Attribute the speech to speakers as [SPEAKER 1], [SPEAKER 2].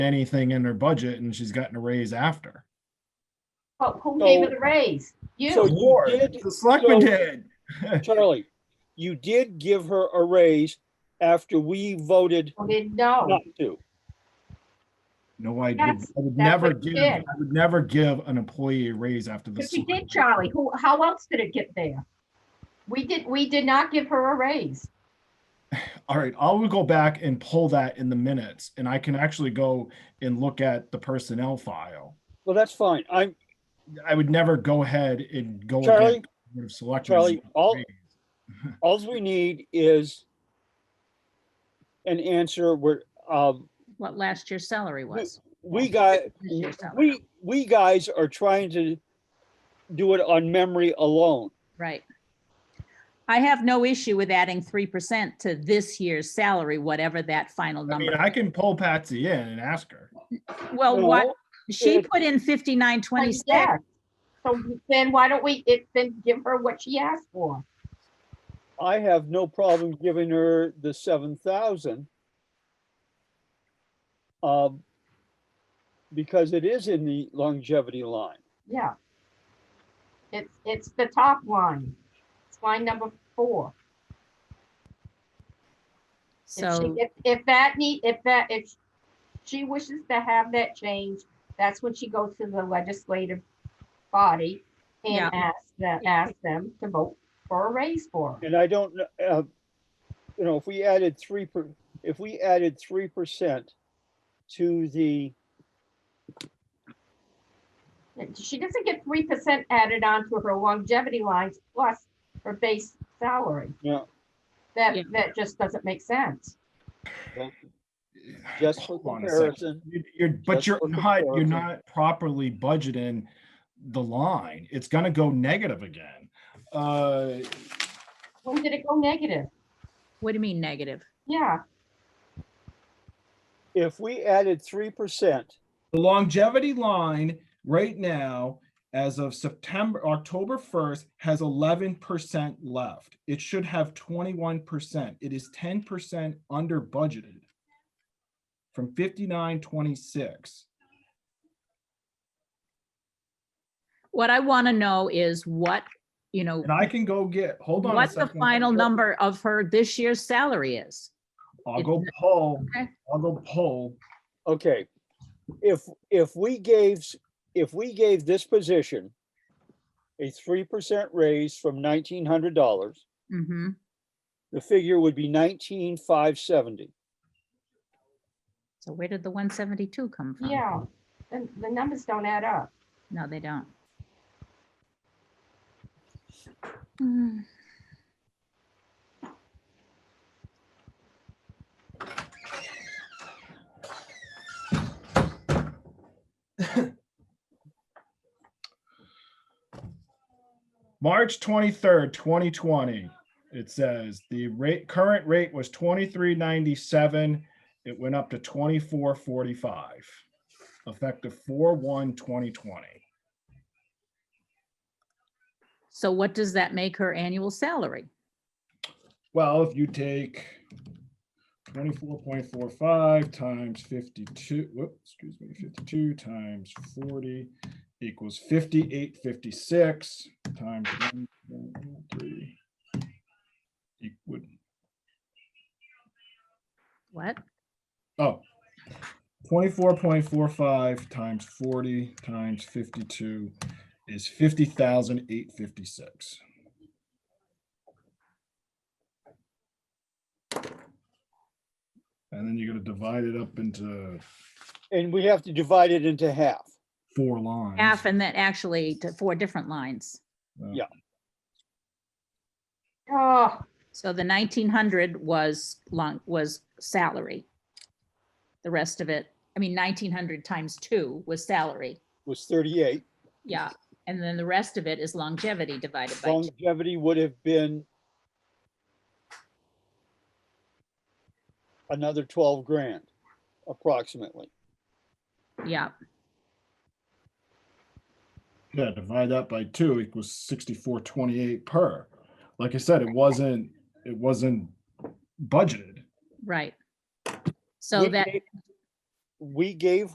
[SPEAKER 1] anything in her budget and she's gotten a raise after.
[SPEAKER 2] Who- Who
[SPEAKER 3] So-
[SPEAKER 2] gave it a raise?
[SPEAKER 3] So
[SPEAKER 2] You,
[SPEAKER 3] you did,
[SPEAKER 1] The selectman
[SPEAKER 3] So-
[SPEAKER 1] did.
[SPEAKER 3] Charlie, you did give her a raise after we voted
[SPEAKER 2] Well, then no.
[SPEAKER 3] not to.
[SPEAKER 1] No, I did, I
[SPEAKER 2] That's-
[SPEAKER 1] would
[SPEAKER 2] that's
[SPEAKER 1] never
[SPEAKER 2] what you
[SPEAKER 1] give,
[SPEAKER 2] did.
[SPEAKER 1] I would never give an employee a raise after the.
[SPEAKER 2] If we
[SPEAKER 1] select-
[SPEAKER 2] did, Charlie, who, how else did it get there? We did, we did not give her a raise.
[SPEAKER 1] All right, I will go back and pull that in the minutes and I can actually go and look at the personnel file.
[SPEAKER 3] Well, that's fine. I'm,
[SPEAKER 1] I would never go ahead and go.
[SPEAKER 3] Charlie,
[SPEAKER 1] Select.
[SPEAKER 3] Charlie, all, Alls we need is an answer where, um,
[SPEAKER 4] what last year's salary was.
[SPEAKER 3] we got,
[SPEAKER 4] This year's salary.
[SPEAKER 3] we, we guys are trying to do it on memory alone.
[SPEAKER 4] Right. I have no issue with adding three percent to this year's salary, whatever that final
[SPEAKER 1] I mean,
[SPEAKER 4] number.
[SPEAKER 1] I can pull Patsy in and ask her.
[SPEAKER 4] Well, what,
[SPEAKER 3] No,
[SPEAKER 4] she
[SPEAKER 3] it-
[SPEAKER 4] put in fifty-nine
[SPEAKER 2] Like,
[SPEAKER 4] twenty-six.
[SPEAKER 2] yeah. So then why don't we, it, then give her what she asked for?
[SPEAKER 3] I have no problem giving her the seven thousand. Um, because it is in the longevity line.
[SPEAKER 2] Yeah. It's, it's the top line. It's line number four. If
[SPEAKER 4] So,
[SPEAKER 2] she, if, if that need, if that, if she wishes to have that change, that's when she goes to the legislative body
[SPEAKER 4] Yeah.
[SPEAKER 2] and asks that,
[SPEAKER 4] Yeah.
[SPEAKER 2] ask them to vote for a raise for her.
[SPEAKER 3] And I don't, kn- uh, you know, if we added three per, if we added three percent to the,
[SPEAKER 2] And She doesn't get three percent added on to her longevity lines plus her base salary.
[SPEAKER 3] you know,
[SPEAKER 2] That,
[SPEAKER 4] Yeah.
[SPEAKER 2] that just doesn't make sense.
[SPEAKER 3] just for
[SPEAKER 1] Hold on a second.
[SPEAKER 3] comparison,
[SPEAKER 1] You- You're, but
[SPEAKER 3] Just
[SPEAKER 1] you're
[SPEAKER 3] look at the
[SPEAKER 1] not, you're
[SPEAKER 3] origin.
[SPEAKER 1] not properly budgeting the line. It's gonna go negative again. Uh,
[SPEAKER 2] When did it go negative?
[SPEAKER 4] what do you mean negative?
[SPEAKER 2] Yeah,
[SPEAKER 3] if we added three percent,
[SPEAKER 1] the longevity line right now, as of September, October first, has eleven percent left. It should have twenty-one percent. It is ten percent under budgeted from fifty-nine twenty-six.
[SPEAKER 4] What I want to know is what, you know,
[SPEAKER 1] And I can go get, hold on a
[SPEAKER 4] what the
[SPEAKER 1] second.
[SPEAKER 4] final number of her this year's salary is.
[SPEAKER 1] I'll go poll,
[SPEAKER 4] Okay.
[SPEAKER 1] I'll go poll.
[SPEAKER 3] okay. If, if we gave, s- if we gave this position a three percent raise from nineteen hundred dollars,
[SPEAKER 4] hmm
[SPEAKER 3] the figure would be nineteen five seventy.
[SPEAKER 4] So where did the one seventy-two come from?
[SPEAKER 2] yeah. And the numbers don't add up.
[SPEAKER 4] No, they don't. Hmm.
[SPEAKER 1] March twenty-third, twenty twenty, it says the rate, current rate was twenty-three ninety-seven. It went up to twenty-four forty-five, effective four one twenty twenty.
[SPEAKER 4] So what does that make her annual salary?
[SPEAKER 1] Well, if you take twenty-four point four five times fifty-two, whoop, excuse me, fifty-two times forty equals fifty-eight fifty-six times one point one three. It would,
[SPEAKER 4] What?
[SPEAKER 1] oh, twenty-four point four five times forty times fifty-two is fifty thousand eight fifty-six. And then you're gonna divide it up into
[SPEAKER 3] And we have to divide it into half.
[SPEAKER 1] four lines.
[SPEAKER 4] Half and then actually to four different lines.
[SPEAKER 1] Uh,
[SPEAKER 3] yeah.
[SPEAKER 2] Oh,
[SPEAKER 4] So the nineteen hundred was long, was salary. The rest of it, I mean, nineteen hundred times two was salary.
[SPEAKER 3] was thirty-eight.
[SPEAKER 4] Yeah. And then the rest of it is longevity divided by two.
[SPEAKER 3] Longevity would have been another twelve grand approximately.
[SPEAKER 4] Yeah.
[SPEAKER 1] Yeah, divide that by two equals sixty-four twenty-eight per. Like I said, it wasn't, it wasn't budgeted.
[SPEAKER 4] Right. So
[SPEAKER 3] Would
[SPEAKER 4] that,
[SPEAKER 3] make- we gave